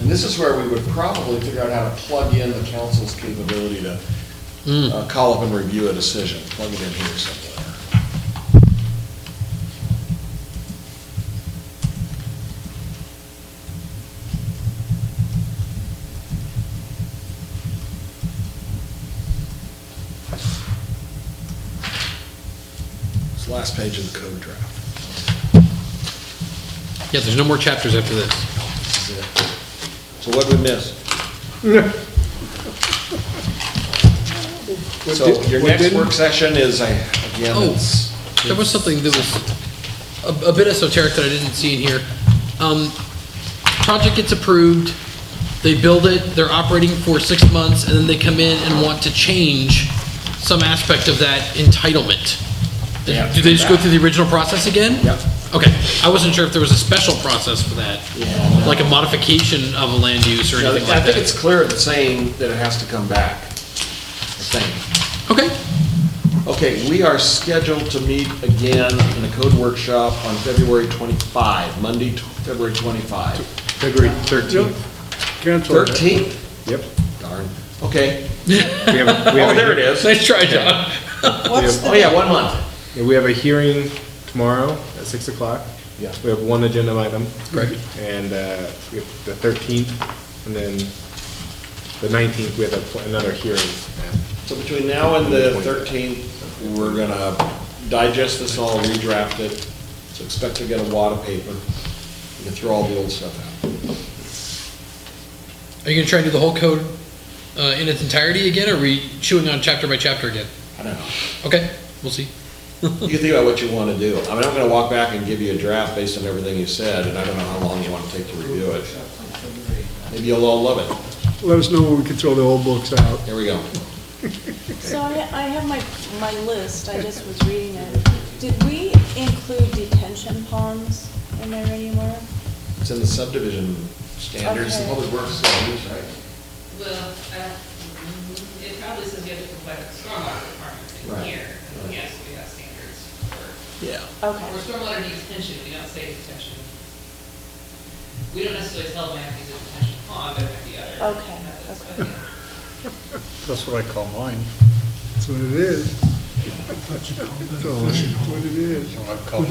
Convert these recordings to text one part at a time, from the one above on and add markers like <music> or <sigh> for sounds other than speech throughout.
This is where we would probably figure out how to plug in the council's capability to uh, call up and review a decision, plug it in here somewhere. It's the last page of the code draft. Yeah, there's no more chapters after this. This is it. So what did we miss? So your what next didn't- work session is, I- again, Oh. it's, There was something that was a, a bit esoteric that I didn't see in here. Um, project gets approved, they build it, they're operating for six months, and then they come in and want to change some aspect of that entitlement. They have to Do they come just go back. through the original process again? Yep. Okay, I wasn't sure if there was a special process for that, like a modification of a land use or Yeah, anything I like think that. it's clear in saying that it has to come back. I think. Okay, <laughs> Okay, we are scheduled to meet again in a code workshop on February 25, Monday, tw- February 25. February 13th. Cancel that. 13? Yep. Darn. Okay. We have a- Oh, we have a- there it is. nice try, John. What's Oh, yeah, one month. yeah, We have a hearing tomorrow at 6 o'clock. Yeah. We have one agenda item. Correct. And uh, we have the 13th, and then the 19th, we have a pl- another hearing. So between now and the 13th, we're going to digest this all, redraft it. So expect to get a wad of paper. We can throw all the old stuff out. Are you gonna try and do the whole code uh, in its entirety again, or are we chewing on chapter by chapter again? I don't know. Okay, we'll see. You can think about what you want to do. I mean, I'm going to walk back and give you a draft based on everything you said, and I don't know how long you want to take to review it. Maybe you'll all love it. Let us know when we can throw the old books out. Here we go. So I, I have my, my list, I just was reading it. Did we include detention ponds in there anywhere? It's in the subdivision standards, the Okay. public works standards, right? Well, I don't, mm-hmm. it probably says you have to comply with stormwater requirements Right. in here. Right. Yes, we have standards for, Yeah. for Okay, stormwater detention, we don't say detention. We don't necessarily tell them I have to use a detention pond, but it might be other. Okay, methods, but okay. yeah. That's what I call mine. That's what it is. That's all I- what it is. What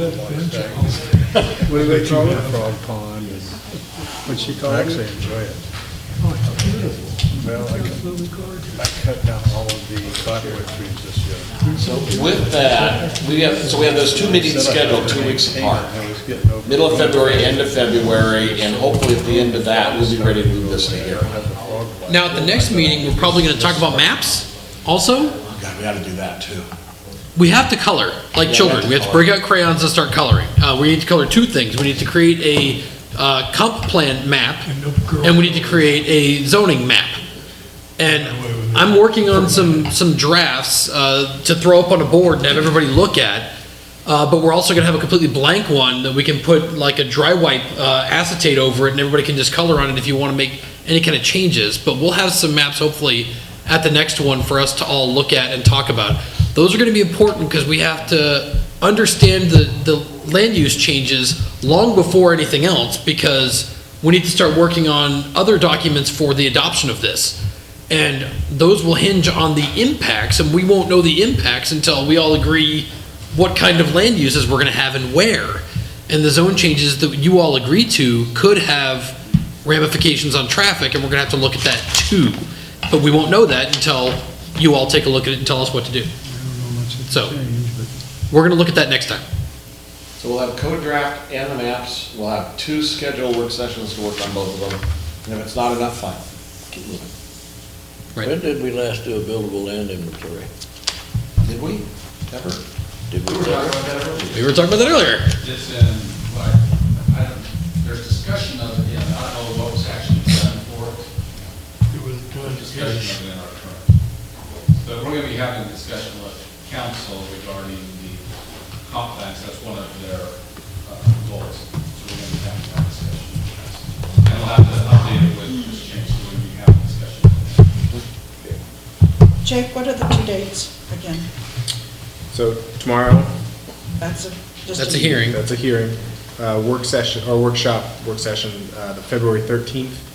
do they call it? Frog pond. What's she call Actually it? enjoy it. Well, I cut- I cut down all of the cottonwood trees this year. So with that, we have, so we have those two meetings scheduled two weeks apart. I was getting over- Middle of February, end of February, and hopefully at the end of that, we'll be ready to move this to here. I have a frog bite. Now, at the next meeting, we're probably gonna talk about maps also. God, we ought to do that too. We have to color, like have children. to We have to color. break out crayons and start coloring. Uh, we need to color two things. We need to create a, uh, comp plan map, and we need to create a zoning map. And I'm working on some, some drafts, uh, to throw up on a board and have everybody look at. Uh, but we're also gonna have a completely blank one that we can put like a dry wipe, uh, acetate over it, and everybody can just color on it if you wanna make any kind of changes. But we'll have some maps hopefully at the next one for us to all look at and talk about. Those are gonna be important because we have to understand the, the land use changes long before anything else because we need to start working on other documents for the adoption of this. And those will hinge on the impacts, and we won't know the impacts until we all agree what kind of land uses we're gonna have and where. And the zone changes that you all agree to could have ramifications on traffic, and we're gonna have to look at that too. But we won't know that until you all take a look at it and tell us what to do. So, we're gonna look at that next time. So we'll have a code draft and the maps, we'll have two scheduled work sessions to work on both of them, and if it's not enough, fine, keep moving. Right. When did we last do a buildable land inventory? Did we? Ever? Did we, We were talking about that earlier. We were talking about that earlier. It's in, like, I don't, there's discussion of it, yeah, I don't know what was actually done for it. It was There's done. discussion of it in our current. But we're gonna be having a discussion with council regarding the comp plans, that's one of their uh, goals. So we're gonna be having that discussion. with council. And we'll have to update it with this change, so we'll be having a discussion. Jake, what are the two dates again? So tomorrow, That's a, just. That's a hearing. that's a hearing, uh, work session, or workshop, work session, uh, the February 13th,